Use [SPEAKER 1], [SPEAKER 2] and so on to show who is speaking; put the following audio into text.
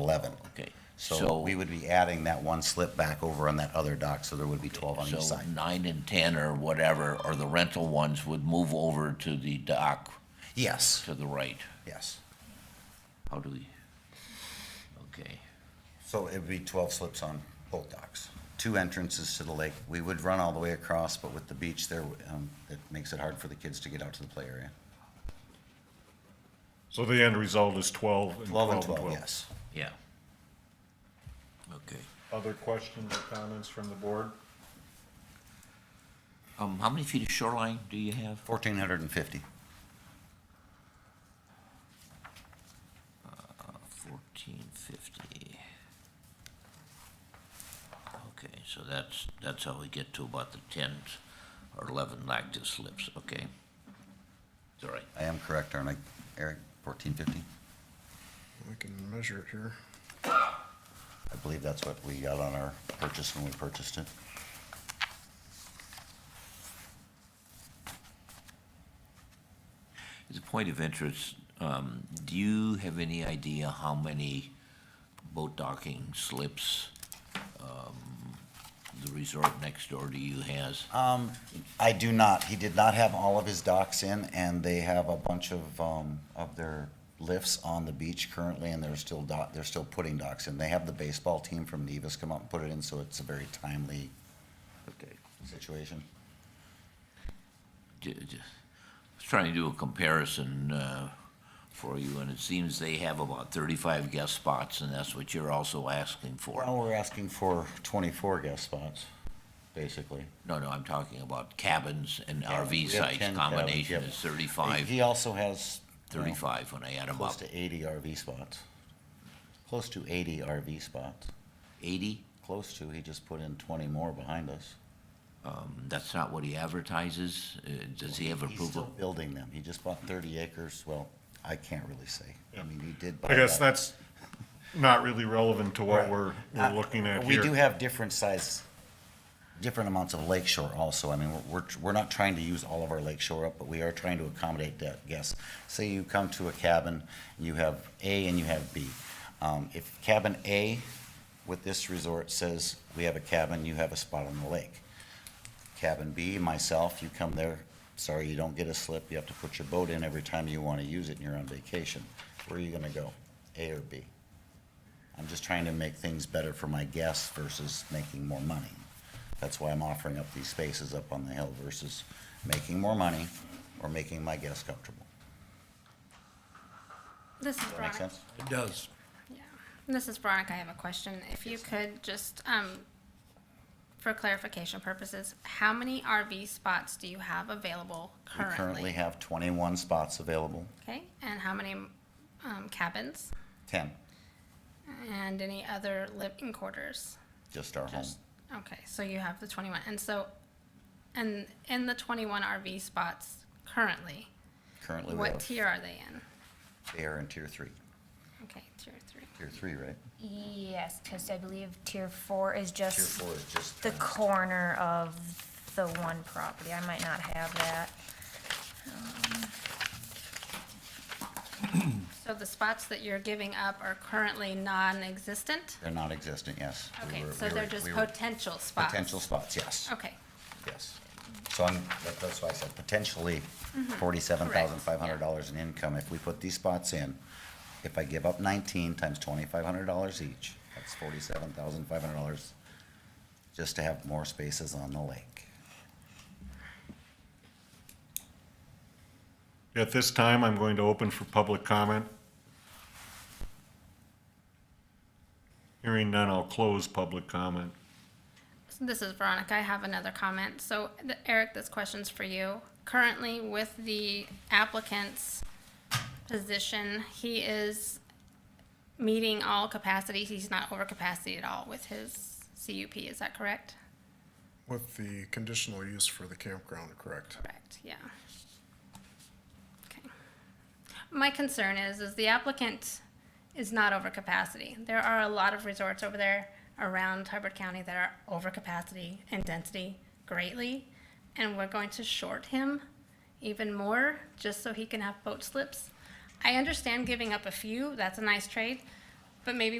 [SPEAKER 1] eleven.
[SPEAKER 2] Okay,
[SPEAKER 1] So
[SPEAKER 2] so-
[SPEAKER 1] we would be adding that one slip back over on that other dock, so there would be twelve on each
[SPEAKER 2] So
[SPEAKER 1] side.
[SPEAKER 2] nine and ten or whatever, or the rental ones would move over to the dock
[SPEAKER 1] Yes,
[SPEAKER 2] to the right.
[SPEAKER 1] yes.
[SPEAKER 2] How do we? Okay,
[SPEAKER 1] So it would be twelve slips on both docks, two entrances to the lake. We would run all the way across, but with the beach there, um, it makes it hard for the kids to get out to the play area.
[SPEAKER 3] So the end result is 12 and
[SPEAKER 1] 12
[SPEAKER 3] 12
[SPEAKER 1] and
[SPEAKER 3] and
[SPEAKER 1] 12,
[SPEAKER 3] 12.
[SPEAKER 1] yes.
[SPEAKER 2] yeah. Okay.
[SPEAKER 3] Other questions or comments from the board?
[SPEAKER 2] Um, how many feet of shoreline do you have?
[SPEAKER 1] 1,450.
[SPEAKER 2] Fourteen fifty. Okay, so that's, that's how we get to about the ten or eleven lactus slips, okay? It's all right.
[SPEAKER 1] I am correct, aren't I, Eric? 1,450?
[SPEAKER 4] We can measure it here.
[SPEAKER 1] I believe that's what we got on our purchase when we purchased it.
[SPEAKER 2] As a point of interest, um, do you have any idea how many boat docking slips, um, the resort next door to you has?
[SPEAKER 1] Um, I do not. He did not have all of his docks in, and they have a bunch of, um, of their lifts on the beach currently, and they're still dock, they're still putting docks in. They have the baseball team from Nevis come up and put it in, so it's a very timely
[SPEAKER 2] Okay.
[SPEAKER 1] situation.
[SPEAKER 2] Ju- ju- I was trying to do a comparison uh, for you, and it seems they have about 35 guest spots, and that's what you're also asking
[SPEAKER 1] Well,
[SPEAKER 2] for.
[SPEAKER 1] we're asking for 24 guest spots, basically.
[SPEAKER 2] No, no, I'm talking about cabins and
[SPEAKER 1] We
[SPEAKER 2] RV
[SPEAKER 1] have 10
[SPEAKER 2] sites. Combination
[SPEAKER 1] cabins,
[SPEAKER 2] is
[SPEAKER 1] yep.
[SPEAKER 2] 35,
[SPEAKER 1] He also has. well,
[SPEAKER 2] 35 when I add them
[SPEAKER 1] Close
[SPEAKER 2] up.
[SPEAKER 1] to 80 RV spots. Close to 80 RV spots.
[SPEAKER 2] 80?
[SPEAKER 1] Close to, he just put in 20 more behind us.
[SPEAKER 2] Um, That's not what he advertises? Uh, Does he have
[SPEAKER 1] He's still
[SPEAKER 2] approval?
[SPEAKER 1] building them. He just bought 30 acres. Well, I can't really say. I mean, he did buy
[SPEAKER 3] I guess
[SPEAKER 1] that.
[SPEAKER 3] that's not really relevant to what
[SPEAKER 1] Right.
[SPEAKER 3] we're, we're
[SPEAKER 1] Uh,
[SPEAKER 3] looking at
[SPEAKER 1] We do
[SPEAKER 3] here.
[SPEAKER 1] have different size, different amounts of lake shore also. I mean, we're- we're, we're not trying to use all of our lake shore up, but we are trying to accommodate that guest. Say you come to a cabin, you have A and you have B. Um, if cabin A with this resort says, we have a cabin, you have a spot on the lake. Cabin B, myself, you come there, sorry, you don't get a slip, you have to put your boat in every time you wanna use it and you're on vacation. Where are you gonna go, A or B? I'm just trying to make things better for my guests versus making more money. That's why I'm offering up these spaces up on the hill versus making more money or making my guests comfortable.
[SPEAKER 5] This is
[SPEAKER 1] Does that make
[SPEAKER 5] Veronica.
[SPEAKER 1] sense?
[SPEAKER 6] It does.
[SPEAKER 5] Yeah. This is Veronica. I have a question. If you could just, um, for clarification purposes, how many RV spots do you have available
[SPEAKER 1] We currently
[SPEAKER 5] currently?
[SPEAKER 1] have twenty-one spots available,
[SPEAKER 5] Okay, and how many, um, cabins
[SPEAKER 1] ten,
[SPEAKER 5] and any other living quarters?
[SPEAKER 1] just our home.
[SPEAKER 5] Just- Okay, so you have the twenty-one, and so, and in the twenty-one RV spots currently,
[SPEAKER 1] Currently, we
[SPEAKER 5] what
[SPEAKER 1] have,
[SPEAKER 5] tier are they in?
[SPEAKER 1] they are in tier three,
[SPEAKER 5] Okay, tier three.
[SPEAKER 1] tier three, right?
[SPEAKER 7] Yes, because I believe tier four is
[SPEAKER 1] Tier
[SPEAKER 7] just
[SPEAKER 1] four is just.
[SPEAKER 7] the corner of the one property. I might not have that.
[SPEAKER 5] So the spots that you're giving up are currently non-existent?
[SPEAKER 1] They're not existent, yes. We
[SPEAKER 5] Okay,
[SPEAKER 1] were-
[SPEAKER 5] so
[SPEAKER 1] we were-
[SPEAKER 5] they're just
[SPEAKER 1] we were-
[SPEAKER 5] potential spots?
[SPEAKER 1] Potential spots, yes.
[SPEAKER 5] Okay,
[SPEAKER 1] Yes. So I'm, that- that's why I said potentially forty-seven thousand five hundred dollars in income if we put these spots in. If I give up nineteen times twenty-five hundred dollars each, that's forty-seven thousand five hundred dollars just to have more spaces on the lake.
[SPEAKER 3] At this time, I'm going to open for public comment. Hearing none, I'll close public comment.
[SPEAKER 5] So this is Veronica, I have another comment. So th- Eric, this question's for you. Currently with the applicant's position, he is meeting all capacities, he's not over capacity at all with his CUP, is that correct?
[SPEAKER 4] With the conditional use for the campground, correct?
[SPEAKER 5] Correct, yeah. Okay. My concern is, is the applicant is not over capacity. There are a lot of resorts over there around Hubbard County that are over capacity and density greatly. And we're going to short him even more just so he can have boat slips. I understand giving up a few, that's a nice trade, but maybe